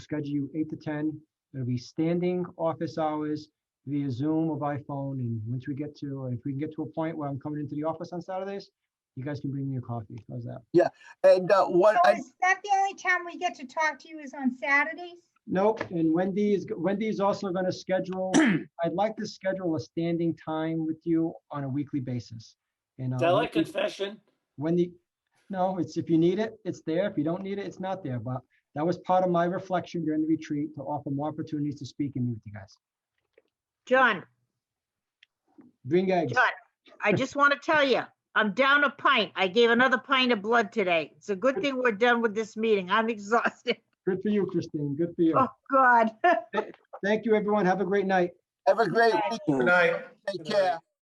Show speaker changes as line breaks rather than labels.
schedule you eight to ten. It'll be standing office hours via Zoom or by phone. And once we get to, if we can get to a point where I'm coming into the office on Saturdays, you guys can bring me a coffee. How's that?
And uh, what,
So
I-
is that the only time we get to talk to you is on Saturdays?
Nope, and Wendy is, Wendy is also gonna schedule, I'd like to schedule a standing time with you on a weekly basis. And uh,
Is that like
Wendy-
confession?
Wendy, no, it's if you need it, it's there. If you don't need it, it's not there. But that was part of my reflection during the retreat to offer more opportunities to speak and meet with you guys.
John,
Bring eggs.
John, I just want to tell you, I'm down a pint. I gave another pint of blood today. It's a good thing we're done with this meeting. I'm exhausted.
Good for you, Christine. Good for you.
Oh, God.
Thank you, everyone. Have a great night.
have a great
Bye.
weekend.
night.
Take care.